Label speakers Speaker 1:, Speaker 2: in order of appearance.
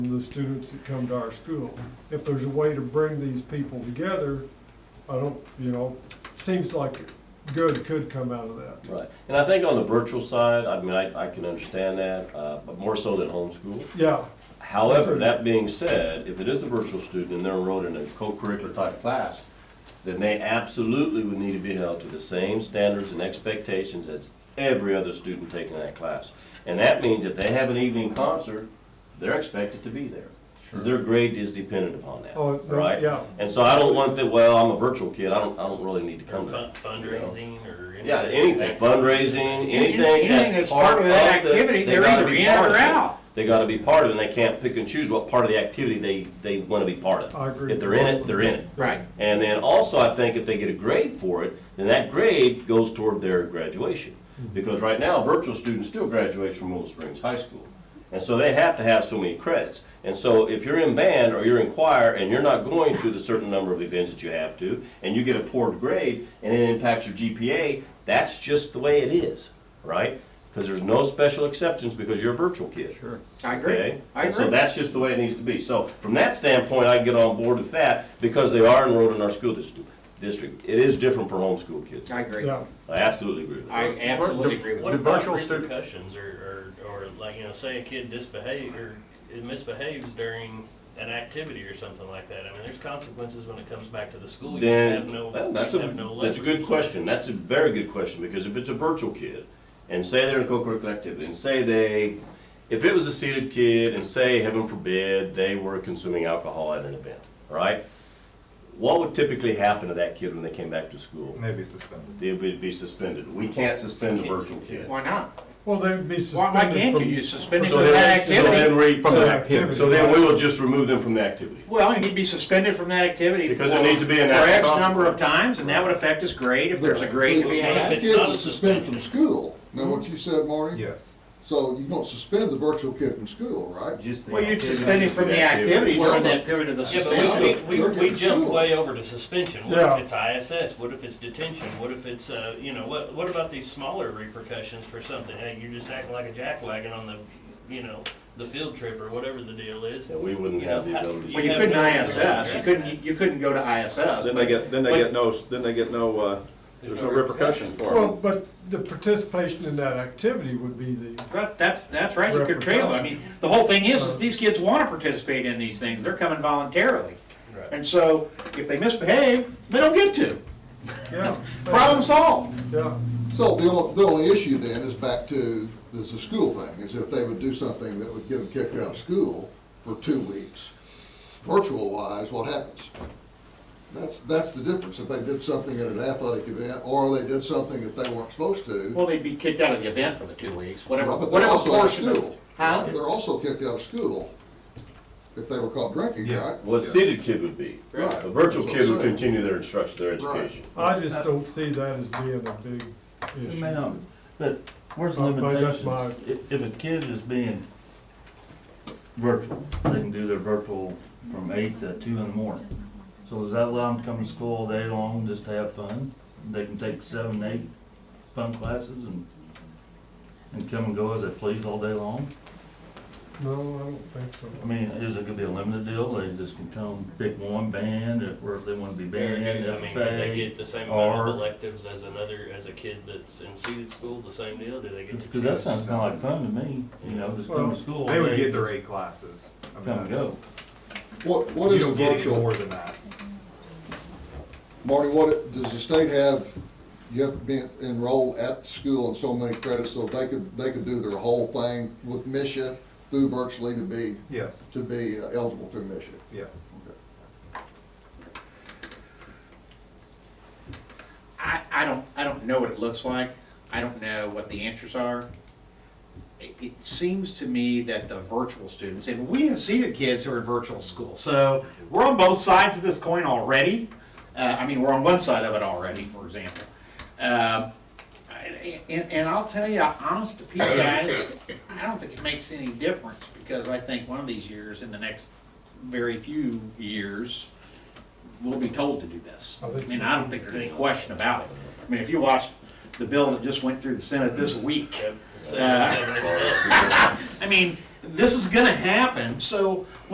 Speaker 1: the students that come to our school. If there's a way to bring these people together, I don't, you know, seems like good could come out of that.
Speaker 2: Right, and I think on the virtual side, I mean, I, I can understand that, uh, but more so than homeschool.
Speaker 1: Yeah,
Speaker 2: However, that being said, if it is a virtual student and they're enrolled in a co-curricular type class, then they absolutely would need to be held to the same standards and expectations as every other student taking that class. And that means if they have an evening concert, they're expected to be there. Their grade is dependent upon that,
Speaker 1: oh, no,
Speaker 2: right?
Speaker 1: yeah,
Speaker 2: And so I don't want that, well, I'm a virtual kid, I don't, I don't really need to come to
Speaker 3: Fun-
Speaker 2: that.
Speaker 3: Fundraising or anything.
Speaker 2: Yeah, anything, fundraising, anything
Speaker 4: Anything
Speaker 2: that's part of
Speaker 4: that
Speaker 2: the-
Speaker 4: activity,
Speaker 2: they
Speaker 4: they're
Speaker 2: gotta
Speaker 4: either
Speaker 2: be
Speaker 4: in or
Speaker 2: part of it.
Speaker 4: out.
Speaker 2: They gotta be part of it, and they can't pick and choose what part of the activity they, they wanna be part of.
Speaker 1: I agree.
Speaker 2: If they're in it, they're in it.
Speaker 4: Right.
Speaker 2: And then also, I think if they get a grade for it, then that grade goes toward their graduation. Because right now, virtual students still graduate from Willow Springs High School. And so they have to have so many credits. And so if you're in band or you're in choir and you're not going to the certain number of events that you have to, and you get a poor grade and it impacts your GPA, that's just the way it is, right? Because there's no special exceptions because you're a virtual kid. Sure.
Speaker 4: I agree.
Speaker 2: Okay?
Speaker 4: I
Speaker 2: And so
Speaker 4: agree.
Speaker 2: that's just the way it needs to be. So from that standpoint, I get on board with that because they are enrolled in our school dis- district. It is different for homeschool kids. I
Speaker 4: I agree.
Speaker 1: yeah.
Speaker 2: absolutely agree with
Speaker 4: I
Speaker 2: that.
Speaker 4: absolutely agree with
Speaker 3: What
Speaker 4: you.
Speaker 3: about
Speaker 5: virtual stu-
Speaker 3: repercussions or, or, or like, you know, say a kid disbehave or it misbehaves during an activity or something like that? I mean, there's consequences when it comes back to the school. You have
Speaker 2: Then,
Speaker 3: no,
Speaker 2: well, that's
Speaker 3: you have no
Speaker 2: a, that's a good
Speaker 3: leverage.
Speaker 2: question. That's a very good question because if it's a virtual kid and say they're in a co-curricular activity and say they, if it was a seated kid and say, heaven forbid, they were consuming alcohol at an event, right? What would typically happen to that kid when they came back to school?
Speaker 5: Maybe suspended.
Speaker 2: They would be suspended. We can't suspend a virtual kid.
Speaker 4: Why not?
Speaker 1: Well, they'd be
Speaker 4: Why, why
Speaker 1: suspended
Speaker 4: can't
Speaker 1: from.
Speaker 4: you? You suspend him
Speaker 2: So
Speaker 4: from
Speaker 2: then-
Speaker 4: that
Speaker 2: so then
Speaker 4: activity.
Speaker 2: we-
Speaker 5: From
Speaker 2: so-
Speaker 5: the activity.
Speaker 2: So then we will just remove them from the activity.
Speaker 4: Well, he'd be suspended from that activity.
Speaker 2: Because
Speaker 4: for-
Speaker 2: there needs to be an
Speaker 4: For
Speaker 2: act
Speaker 4: X
Speaker 2: of
Speaker 4: number of
Speaker 2: consequence.
Speaker 4: times, and that would affect his grade if there's a grade to be
Speaker 3: Yeah.
Speaker 4: had.
Speaker 3: it's
Speaker 6: Kids
Speaker 3: not
Speaker 6: are
Speaker 3: a
Speaker 6: suspended
Speaker 3: suspension.
Speaker 6: from school. Know what you said, Marty?
Speaker 5: Yes.
Speaker 6: So you don't suspend the virtual kid from school, right?
Speaker 5: Just the
Speaker 4: Well, you'd
Speaker 5: activity.
Speaker 4: suspend him from the activity during that period of the
Speaker 3: Yeah, but we-
Speaker 4: suspension.
Speaker 3: we, we, we, jumped way over to suspension. What
Speaker 1: Yeah.
Speaker 3: if it's ISS? What if it's detention? What if it's, uh, you know, what, what about these smaller repercussions for something? Hey, you're just acting like a jackwagon on the, you know, the field trip or whatever the deal is.
Speaker 2: And we wouldn't have the ability.
Speaker 4: Well, you couldn't ISS. You couldn't, you couldn't go to ISS.
Speaker 7: Then they get, then they
Speaker 4: But-
Speaker 7: get no, then they get no, uh, there's no repercussion for
Speaker 1: Well,
Speaker 7: them.
Speaker 1: but the participation in that activity would be the,
Speaker 4: But that's, that's right, you could trail, I mean, the whole thing is, is these kids wanna participate in these things, they're coming voluntarily.
Speaker 3: Right.
Speaker 4: And so, if they misbehave, they don't get to,
Speaker 1: yeah,
Speaker 4: problem solved.
Speaker 1: yeah.
Speaker 6: So the only, the only issue then is back to, this is a school thing, is if they would do something that would get them kicked out of school for two weeks, virtual wise, what happens? That's, that's the difference. If they did something at an athletic event, or they did something that they weren't supposed to,
Speaker 4: Well, they'd be kicked out of the event for the two weeks, whatever,
Speaker 6: well, but they're
Speaker 4: whatever
Speaker 6: also out of
Speaker 4: portion of.
Speaker 6: school.
Speaker 4: Huh?
Speaker 6: They're also kicked out of school if they were caught drinking, right?
Speaker 5: Yes.
Speaker 2: Well, a seated kid would be.
Speaker 6: Right.
Speaker 2: A virtual kid would continue their instruction, their education.
Speaker 1: I just don't see that as being a big issue.
Speaker 8: Ma'am, but where's the
Speaker 1: Uh, but that's
Speaker 8: limitations?
Speaker 1: my-
Speaker 8: If, if a kid is being virtual, they can do their virtual from eight to two in the morning. So does that allow them to come to school all day long, just to have fun? They can take seven, eight fun classes and, and come and go as they please all day long?
Speaker 1: No, I don't think so.
Speaker 8: I mean, is it gonna be a limited deal, they just can come pick one band, if, or if they wanna be band,
Speaker 3: I mean, do they
Speaker 8: FFA?
Speaker 3: get the same amount
Speaker 8: or-
Speaker 3: of electives as another, as a kid that's in seated school, the same deal? Do they get to choose?
Speaker 8: Cause that sounds kinda like fun to me, you know, just come
Speaker 1: Well,
Speaker 8: to school.
Speaker 5: They would
Speaker 8: all
Speaker 5: get
Speaker 8: day,
Speaker 5: their eight classes. I mean,
Speaker 8: Come and
Speaker 5: that's-
Speaker 8: go.
Speaker 6: What, what
Speaker 5: You
Speaker 6: is a
Speaker 5: don't get any
Speaker 6: virtual?
Speaker 5: more than that.
Speaker 6: Marty, what, does the state have, you have to be enrolled at the school in so many credits, so they could, they could do their whole thing with Misha through virtually to be,
Speaker 5: Yes,
Speaker 6: to be uh, eligible through Misha?
Speaker 5: yes.
Speaker 4: I, I don't, I don't know what it looks like, I don't know what the answers are. It, it seems to me that the virtual students, and we have seen the kids who are in virtual school, so we're on both sides of this coin already. Uh, I mean, we're on one side of it already, for example. Um, I- and, and I'll tell you, honest to Pete, guys, I don't think it makes any difference, because I think one of these years, in the next very few years, we'll be told to do this.
Speaker 1: I think-
Speaker 4: And I don't think there's any question about it. I mean, if you watched the bill that just went through the Senate this week,
Speaker 3: Yep. Same
Speaker 4: Uh,
Speaker 3: definition.
Speaker 4: I mean, this is gonna happen, so